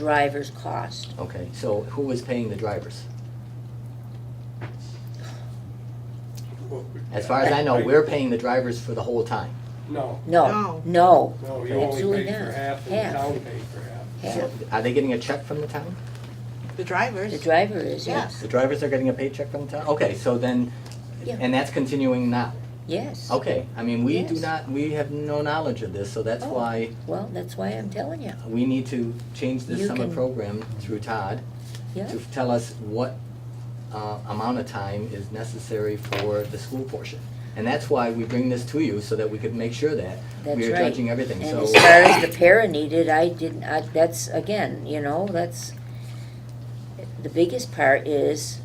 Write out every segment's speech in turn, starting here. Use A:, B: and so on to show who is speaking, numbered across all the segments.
A: driver's cost.
B: Okay, so who is paying the drivers? As far as I know, we're paying the drivers for the whole time.
C: No,
A: No, no,
C: no, you only
A: Absolutely
C: pay for
A: not.
C: half, and
A: Half.
C: the town pays for half.
A: yeah,
B: Are they getting a check from the town?
D: The drivers.
A: the driver is, yes,
B: The drivers are getting a paycheck from the town? Okay, so then,
A: Yeah.
B: and that's continuing now?
A: yes.
B: Okay, I mean, we do
A: Yes.
B: not, we have no knowledge of this, so that's
A: Oh.
B: why
A: Well, that's why I'm telling you,
B: we need to change this
A: You
B: summer
A: can-
B: program through Todd
A: yeah,
B: to tell us what uh, amount of time is necessary for the school portion. And that's why we bring this to you, so that we could make sure that
A: that's right.
B: we are judging everything,
A: And
B: so.
A: as far as the para needed, I didn't, I, that's, again, you know, that's, the biggest part is,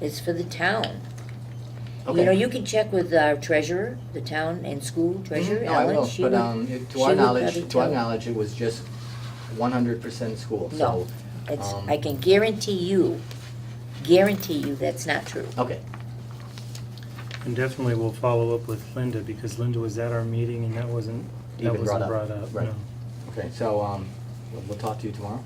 A: is for the town. You know,
B: Okay.
A: you can check with our treasurer, the town and school treasurer,
B: Mhm. No, I
A: Ellen,
B: will,
A: she
B: but
A: would,
B: um, it-
A: she
B: to our
A: would probably
B: knowledge, to our
A: tell.
B: knowledge, it was just one hundred percent school,
A: No,
B: so,
A: it's,
B: um,
A: I can guarantee you, guarantee you that's not true.
B: okay,
E: And definitely we'll follow up with Linda, because Linda was at our meeting and that wasn't, that
B: Even brought
E: wasn't
B: up,
E: brought up,
B: right.
E: no.
B: okay, so um, we'll- we'll talk to you tomorrow,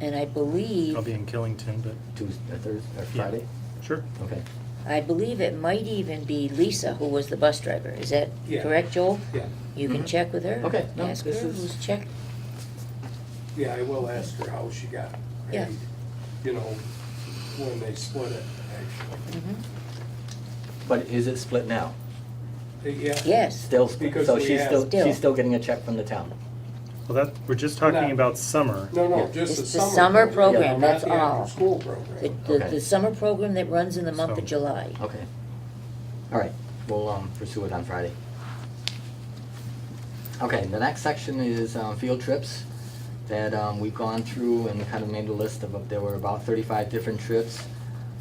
A: And I believe,
E: I'll be in Killington, but,
B: Tuesday, Thursday, or
E: Yeah.
B: Friday?
E: sure.
B: Okay,
A: I believe it might even be Lisa who was the bus driver. Is that
C: Yeah.
A: correct, Joel?
C: Yeah,
A: You can
B: Mhm.
A: check with her.
B: Okay, no,
A: Ask her
B: this is-
A: who's checked.
C: yeah, I will ask her how she got
A: Yeah.
C: paid, you know, when they split it, actually.
B: Mm-hmm.
A: Mhm.
B: but is it split now?
C: Yeah.
A: Yes,
B: Still split,
C: Because
B: so
C: we
B: she's
C: have-
B: still,
A: Still.
B: she's still getting a check from the town?
E: Well, that, we're just talking
C: No.
E: about summer.
C: No, no,
B: Yeah.
C: just the
A: It's the
C: summer.
A: summer program,
C: not
A: that's
C: the
A: all.
C: after-school
A: the,
C: program.
A: the,
B: Okay.
A: the summer program that runs in the month
E: So-
A: of July.
B: Okay, all right, we'll um, pursue it on Friday. Okay, the next section is um, field trips that um, we've gone through and kind of made a list of, there were about thirty-five different trips.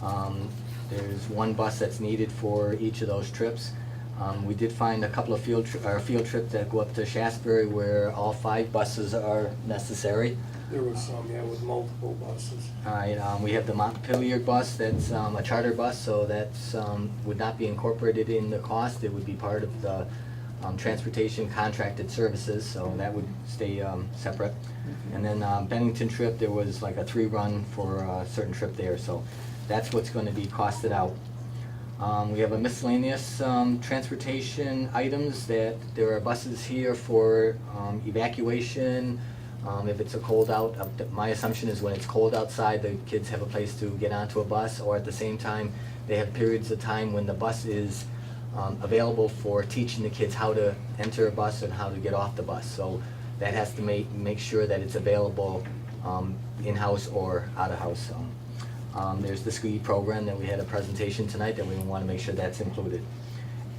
B: Um, There's one bus that's needed for each of those trips. Um, We did find a couple of field, tri- or field trips that go up to Shasberry where all five buses are necessary.
C: There was some, yeah, with multiple buses.
B: All right, um, we have the Montpelier bus, that's, um, a charter bus, so that's, um, would not be incorporated in the cost, it would be part of the, um, transportation contracted services, so that would stay, um, separate. And then, um, Bennington trip, there was like a three-run for a certain trip there, so that's what's gonna be costed out. Um, we have a miscellaneous, um, transportation items that, there are buses here for, um, evacuation, um, if it's a cold out, uh, th- my assumption is when it's cold outside, the kids have a place to get onto a bus, or at the same time, they have periods of time when the bus is um, available for teaching the kids how to enter a bus and how to get off the bus. So that has to make, make sure that it's available um, in-house or out-of-house. um. Um, There's the SCUE program that we had a presentation tonight that we want to make sure that's included.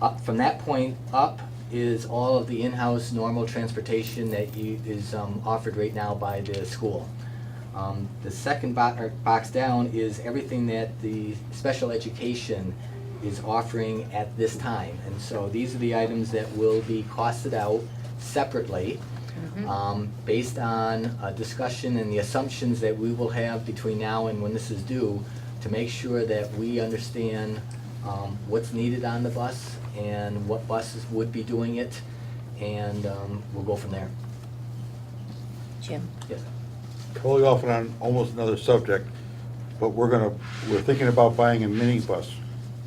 B: Up, from that point up is all of the in-house normal transportation that you, is, um, offered right now by the school. Um, the second bo- or box down is everything that the special education is offering at this time. And so these are the items that will be costed out separately,
A: Mm-hmm.
B: um, based on a discussion and the assumptions that we will have between now and when this is due, to make sure that we understand, um, what's needed on the bus and what buses would be doing it, and, um, we'll go from there.
A: Jim,
B: Yes,
F: totally off and on almost another subject, but we're gonna, we're thinking about buying a minibus.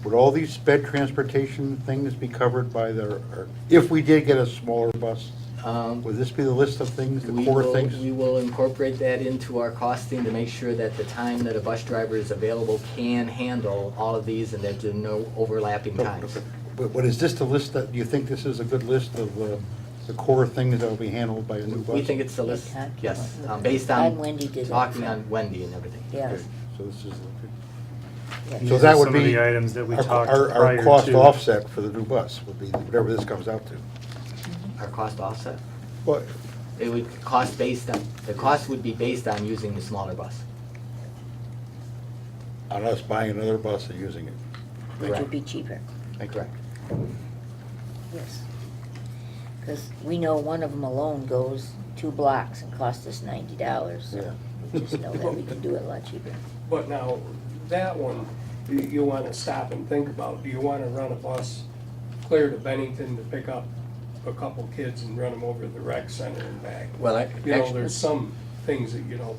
F: Would all these sped transportation things be covered by the, or if we did get a smaller bus,
B: um,
F: would this be the list of things, the
B: We
F: core
B: will- We
F: things?
B: will incorporate that into our costing to make sure that the time that a bus driver is available can handle all of these and that there are no overlapping times.
F: But, but is this the list that, do you think this is a good list of uh, the core things that will be handled by a new bus?
B: We think it's the list,
A: Okay.
B: yes, um, based
A: And
B: on
A: Wendy did that.
B: talking on Wendy and everything.
A: yeah,
F: Okay, So this is, okay.
A: yeah.
F: so that would
E: These are some of
F: be
E: the items that we
F: our-
E: talked
F: our-
E: prior
F: Our cost
E: to.
F: offset for the new bus would be whatever this comes out to.
B: Our cost offset,
F: Well,
B: it would cost based on, the cost would be based on using the smaller bus.
F: on us buying another bus and using it.
A: which
B: Correct.
A: would be cheaper,
F: Thank you.
B: Correct.
A: yes. Cause we know one of them alone goes two blocks and costs us ninety dollars,
F: Yeah.
A: so we just know that we can do it a lot cheaper.
C: But now, that one, you, you wanna stop and think about, do you wanna run a bus clear to Bennington to pick up a couple kids and run them over to the rec center and back?
B: Well, I,
C: You know, there's some, things that you don't